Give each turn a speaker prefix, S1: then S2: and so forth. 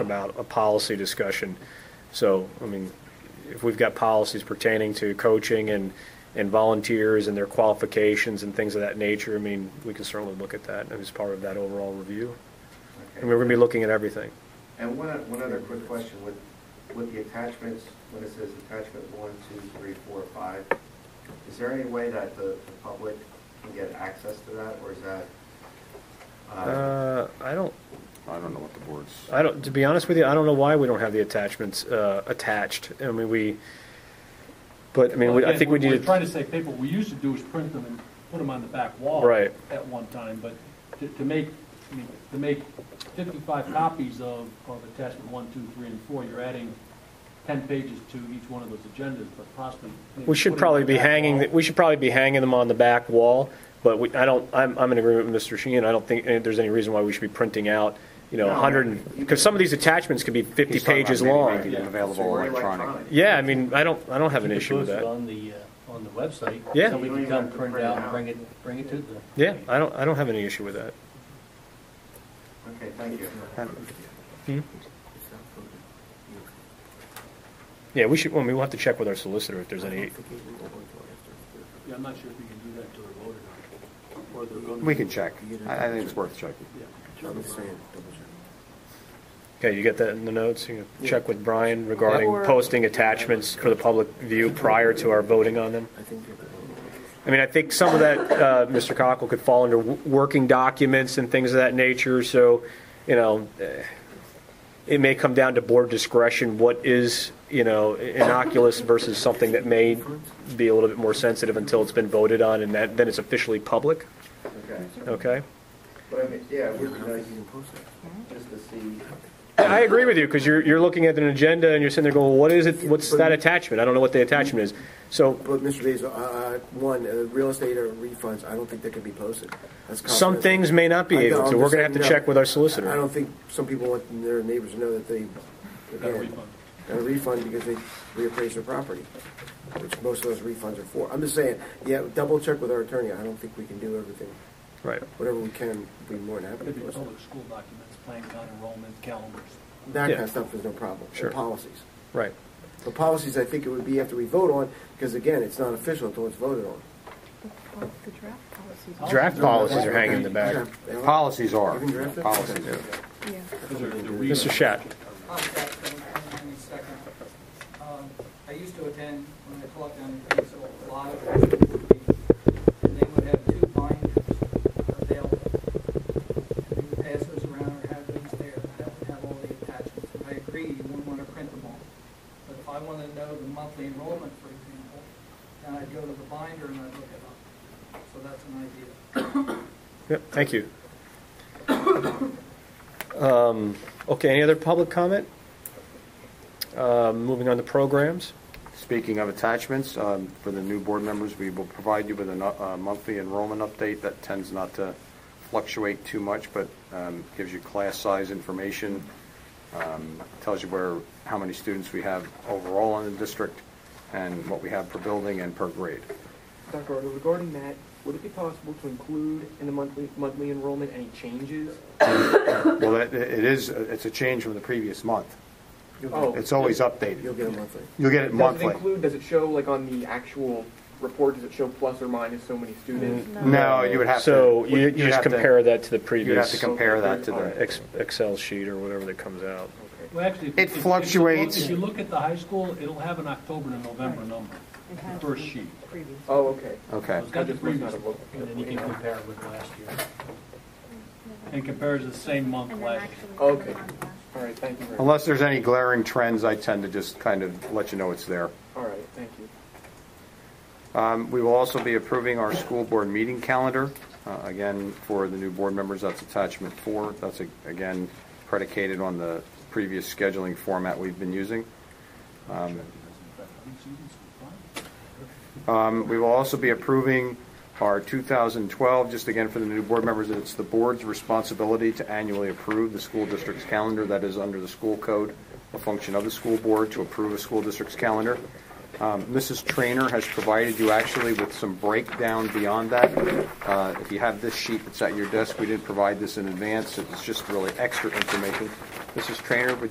S1: about a policy discussion. So, I mean, if we've got policies pertaining to coaching and, and volunteers and their qualifications and things of that nature, I mean, we can certainly look at that as part of that overall review. And we're going to be looking at everything.
S2: And one, one other quick question, with, with the attachments, when it says attachment one, two, three, four, five, is there any way that the, the public can get access to that, or is that? uh,
S1: Uh, I don't,
S3: I don't know what the board's,
S1: I don't, to be honest with you, I don't know why we don't have the attachments uh, attached. I mean, we, but, I mean, we- I think we
S4: Again,
S1: need
S4: We're trying
S1: to,
S4: to save paper, what we used to do is print them and put them on the back wall.
S1: Right.
S4: At one time, but to, to make, I mean, to make fifty-five copies of, of attachment one, two, three, and four, you're adding ten pages to each one of those agendas, but possibly. maybe
S1: we should
S4: putting
S1: probably
S4: them on
S1: be
S4: the back
S1: hanging,
S4: wall.
S1: we should probably be hanging them on the back wall, but we, I don't, I'm, I'm in agreement with Mr. Sheehan. I don't think eh, there's any reason why we should be printing out, you know,
S2: No.
S1: 100, because some of these attachments could be 50
S3: He's talking about
S1: pages
S3: maybe
S1: long.
S3: making it
S2: yeah,
S3: available
S2: so we're
S3: electronic.
S1: Yeah, I mean, I don't, I don't have an
S5: You could
S1: issue with
S5: post it
S1: that.
S5: On the, uh, on the website.
S1: Yeah.
S5: Somebody can
S2: You don't even
S5: come
S2: have to
S5: print it
S2: print it
S5: out
S2: out.
S5: and bring it, bring it to the.
S1: Yeah, I don't, I don't have any issue with that.
S2: Okay, thank you.
S1: Yeah, we should, well, I mean, we'll have to check with our solicitor if there's any,
S4: Yeah, I'm not sure if you can do that to a voter or not, or they're going to.
S3: we can check. I, I think it's worth checking.
S4: Yeah.
S1: okay, you get that in the notes? You can check with Brian regarding
S3: Yeah.
S1: posting attachments for the public view prior to our voting on them? I mean, I think some of that, uh, Mr. Cockle, could fall under w- working documents and things of that nature, so, you know, eh, it may come down to board discretion, what is, you know, innocuous versus something that may be a little bit more sensitive until it's been voted on, and that, then it's officially public,
S2: Okay,
S1: okay?
S2: but I mean, yeah, it would be nice just to see,
S1: I agree with you, because you're, you're looking at an agenda and you're sitting there going, well, what is it, what's that attachment? I don't know what the attachment is. So
S6: But Mr. Basil, uh, uh, one, uh, real estate or refunds, I don't think they can be posted. That's
S1: some
S6: confidential.
S1: things may not be
S6: I know,
S1: able to.
S6: I'm
S1: We're
S6: just
S1: going to have to
S6: saying,
S1: check
S6: no.
S1: with our
S6: I
S1: solicitor.
S6: don't think some people want their neighbors to know that they
S4: Got a refund.
S6: got a refund because they reappraised their property, which most of those refunds are for. I'm just saying, yeah, double check with our attorney. I don't think we can do everything.
S1: Right.
S6: Whatever we can, we'd be more than happy to
S4: Maybe
S6: post.
S4: public school documents, plan, con, enrollment, calendars.
S6: That
S1: Yeah.
S6: kind of stuff is no problem. The
S1: Sure.
S6: Policies.
S1: Right.
S6: The policies, I think it would be after we vote on, because again, it's not official until it's voted on.
S7: Well, the draft policies.
S1: Draft policies are hanging in the back.
S6: Yeah.
S3: Policies are,
S6: You can draft it?
S3: policies are.
S7: Yeah.
S1: Mr. Shat,
S8: I'll stop for a second. Um, I used to attend, when I taught down in Kingsville, a lot of meetings, and they would have two binders available. And they would pass those around or have things there, that would have all the attachments. And I agree, you wouldn't want to print them all. But if I wanted to know the monthly enrollment, for example, then I'd go to the binder and I'd look it up. So that's an idea.
S1: Yep, thank you. Um, Okay, any other public comment? Um, Moving on to programs.
S3: Speaking of attachments, um, for the new board members, we will provide you with a no- a monthly enrollment update that tends not to fluctuate too much, but um, gives you class size information, um, tells you where, how many students we have overall in the district, and what we have per building and per grade.
S9: Dr. Ardo, regarding that, would it be possible to include in the monthly, monthly enrollment any changes?
S3: Well, that- it is, it's a change from the previous month.
S9: Oh.
S3: It's always
S6: You'll
S3: updated.
S6: get a monthly.
S3: You'll get it
S9: Does
S3: monthly.
S9: it include, does it show, like, on the actual report, does it show plus or minus so many students?
S3: No, you would have to.
S1: So you you
S3: you'd
S1: just
S3: have to-
S1: compare that to the
S3: You'd have to
S1: previous uh,
S3: compare that to the.
S1: ex- Excel sheet or whatever that comes out.
S4: Well, actually. if-
S3: It
S4: if- if you look-
S3: fluctuates.
S4: If you look at the high school, it'll have an October and a November number, the first sheet.
S7: Previous.
S3: Mm.
S9: Oh, okay.
S3: Okay.
S4: It's got the
S9: I just must
S4: previous,
S9: not have
S4: and
S9: looked.
S4: then you can compare it with last year. And compares the same month
S7: And then
S4: last year.
S7: actually.
S9: Okay. All right, thank you very much.
S3: Unless there's any glaring trends, I tend to just kind of let you know it's there.
S9: All right, thank you.
S3: Um, We will also be approving our school board meeting calendar. Uh, Again, for the new board members, that's attachment four. That's, a- again, predicated on the previous scheduling format we've been using. Um, We will also be approving our 2012, just again for the new board members, it's the board's responsibility to annually approve the school district's calendar. That is under the school code, a function of the school board to approve a school district's calendar. Um, Mrs. Trainer has provided you actually with some breakdown beyond that. Uh, If you have this sheet that's at your desk, we didn't provide this in advance. It's just really extra information. Mrs. Trainer, would you